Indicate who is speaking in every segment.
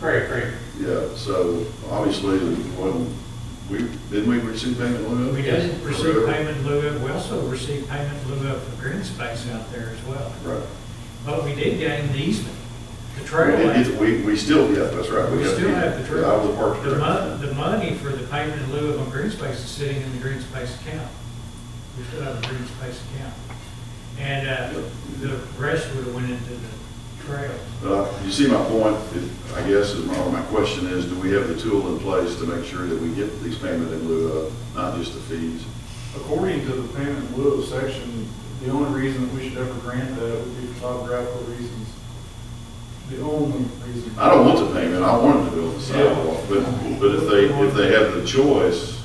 Speaker 1: Great, great.
Speaker 2: Yeah, so obviously, when we, didn't we receive payment on that?
Speaker 3: We did receive
Speaker 2: Whatever.
Speaker 3: payment in lieu of, we also received payment in lieu of the green space out there as well.
Speaker 2: Right.
Speaker 3: But we did gain the easement, the
Speaker 2: We
Speaker 3: trail.
Speaker 2: did-
Speaker 3: land.
Speaker 2: We, we still, yeah, that's right.
Speaker 3: We
Speaker 2: got
Speaker 3: still
Speaker 2: the-
Speaker 3: have the trail.
Speaker 2: I was a park
Speaker 3: The
Speaker 2: director.
Speaker 3: mon, the money for the payment in lieu of on green space is sitting in the green space account. We still have a green space account. And, uh, the rest would have went into the trails.
Speaker 2: Uh, You see my point, If- I guess, is my, or my question is, do we have the tool in place to make sure that we get these payment in lieu of, not just the fees?
Speaker 4: According to the payment in lieu of section, the only reason that we should ever grant that would be for topographical reasons. The only reason.
Speaker 2: I don't want the payment, I want them to build the sidewalk, but, but if they, if they have the choice,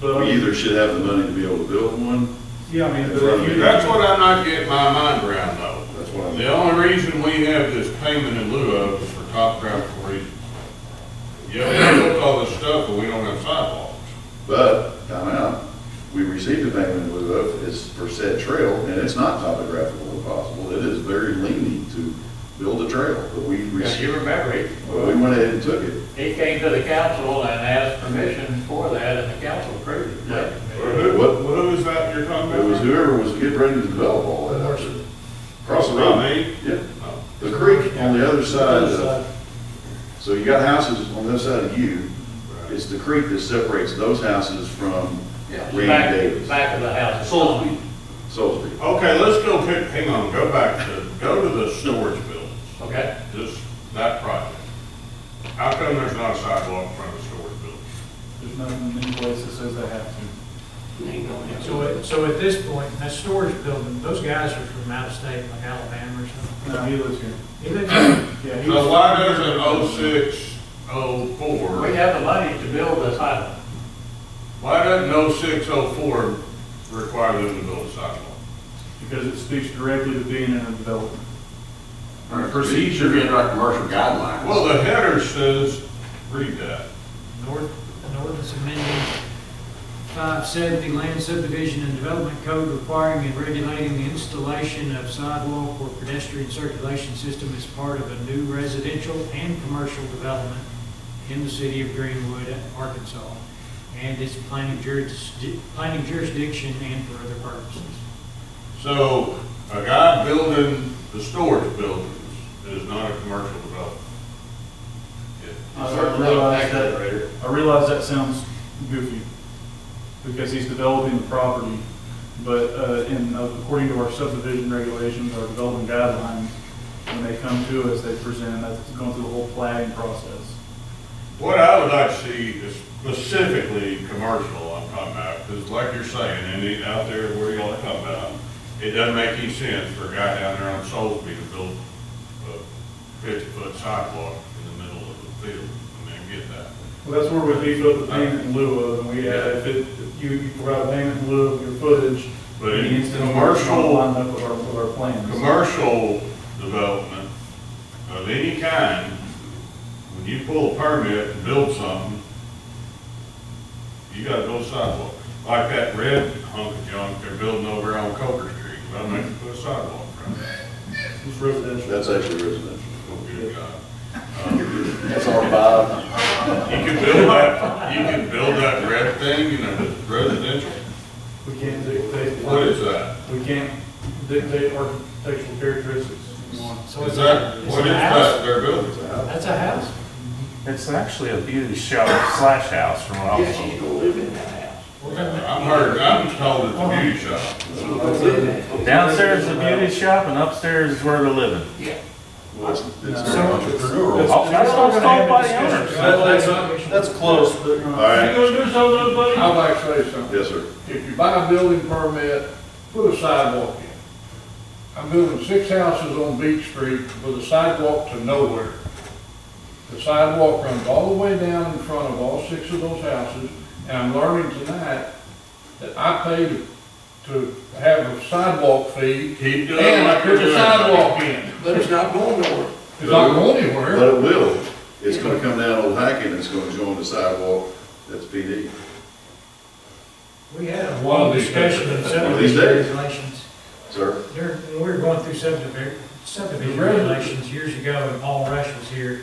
Speaker 4: But, um,
Speaker 2: we either should have the money to be able to build one,
Speaker 4: yeah, I mean, but if you.
Speaker 5: That's what I'm not getting my mind around though.
Speaker 2: that's what I'm.
Speaker 5: The only reason we have this payment in lieu of is for topographical reasons. Yeah, we built all this stuff, but we don't have sidewalks.
Speaker 2: But, time out, we received a payment in lieu of, it's for said trail, and it's not topographical impossible, it is very lenient to build a trail, but we
Speaker 6: Now,
Speaker 2: received,
Speaker 6: you remember, he,
Speaker 2: well, we went ahead and took it.
Speaker 6: he came to the council and asked permission for that, and the council approved
Speaker 2: Yeah.
Speaker 6: it.
Speaker 2: What,
Speaker 5: who is that you're talking
Speaker 2: it was whoever was getting ready to develop all that, actually. Across the road,
Speaker 5: Me?
Speaker 2: yeah, the creek on the other side uh, of,
Speaker 4: uh,
Speaker 2: so you got houses on this side of you, it's the creek that separates those houses from
Speaker 6: Yeah.
Speaker 2: Randy
Speaker 6: Back-
Speaker 2: Davis.
Speaker 6: Back of the house.
Speaker 2: Salisbury.
Speaker 5: Okay, let's go pick, hang on, go back to, go to the storage buildings,
Speaker 6: Okay,
Speaker 5: this, that project. How come there's not a sidewalk in front of the storage buildings?
Speaker 4: There's nothing in place that says they have to.
Speaker 3: So, at- so at this point, in that storage building, those guys are from out of state, like Alabama or something.
Speaker 4: No, he lives here.
Speaker 3: He lives in
Speaker 4: Yeah, he
Speaker 5: So
Speaker 4: was-
Speaker 5: why doesn't oh six, oh four?
Speaker 6: we have the money to build this island.
Speaker 5: Why doesn't oh six, oh four require them to build a sidewalk?
Speaker 4: Because it speaks directly to being in a development.
Speaker 7: Procedure in our commercial guidelines.
Speaker 5: Well, the header says, read that.
Speaker 3: North, Northern's amending five seventy land subdivision and development code requiring and regulating the installation of sidewalk or pedestrian circulation system as part of a new residential and commercial development in the city of Greenwood, Arkansas, and its planning jurisdiction, planning jurisdiction and for other purposes.
Speaker 5: So a guy building the storage buildings is not a commercial development. Yeah.
Speaker 4: I realize that, I realize that sounds goofy, because he's developing the property, but, uh, in, according to our subdivision regulations, our development guidelines, when they come to us, they present, that's going through the whole plating process.
Speaker 5: What I would like to see is specifically commercial, I'm talking about, because like you're saying, and it- out there where y'all are talking about, it doesn't make any sense for a guy down there on Soulsby to build a fifty-foot sidewalk in the middle of the field. I mean, I get that.
Speaker 4: Well, that's where we beef up the payment in lieu of, and we, have- if it, if you, you provide payment in lieu of your footage.
Speaker 5: But
Speaker 4: the
Speaker 5: in
Speaker 4: instant commercial
Speaker 5: commercial-
Speaker 4: Line up with our, with our plans.
Speaker 5: commercial development of any kind, when you pull a permit and build something, you gotta build sidewalk. Like that red hunk of junk they're building over on Coker Street, I'm gonna put a sidewalk around it.
Speaker 4: It's residential.
Speaker 2: That's actually residential.
Speaker 5: Oh, good God.
Speaker 2: That's our vibe.
Speaker 5: You can build that, you can build that red thing in a residential,
Speaker 4: We can't dictate.
Speaker 5: what is that?
Speaker 4: We can't dictate architectural characteristics.
Speaker 3: So
Speaker 5: Is
Speaker 3: it's
Speaker 5: that,
Speaker 3: a- it's
Speaker 5: what
Speaker 3: a
Speaker 5: is
Speaker 3: house?
Speaker 5: that they're building?
Speaker 3: That's a house.
Speaker 8: It's actually a beauty shop slash house from what I was told.
Speaker 6: Yes, you can live in that house.
Speaker 5: I'm heard, I'm told it's a beauty shop.
Speaker 8: Downstairs is a beauty shop and upstairs is where they're living.
Speaker 6: Yeah.
Speaker 2: Well, it's- it's
Speaker 4: So-
Speaker 2: very entrepreneurial.
Speaker 8: Oh, that's what it's called by the owners.
Speaker 4: That's, that's close, but.
Speaker 2: All right,
Speaker 8: gonna do something, buddy?
Speaker 7: I'd like to say something.
Speaker 2: yes, sir.
Speaker 7: If you buy a building permit, put a sidewalk in. I'm building six houses on Beach Street with a sidewalk to nowhere. The sidewalk runs all the way down in front of all six of those houses, and I'm learning tonight that I paid to have a sidewalk fee,
Speaker 5: Keep doing
Speaker 7: and I
Speaker 5: like
Speaker 7: put
Speaker 5: you're
Speaker 7: a
Speaker 5: doing.
Speaker 7: sidewalk in.
Speaker 6: But it's not going nowhere.
Speaker 7: It's not going anywhere.
Speaker 2: But it will, it's gonna come down Old Hackett, and it's gonna join the sidewalk, that's PD.
Speaker 3: We had a
Speaker 7: One
Speaker 3: long
Speaker 7: of these
Speaker 3: discussion of subdivision
Speaker 2: days.
Speaker 3: regulations.
Speaker 2: Sir,
Speaker 3: During, when we were going through subdivision, subdivision
Speaker 7: The road-
Speaker 3: regulations years ago, and Paul Rush was here,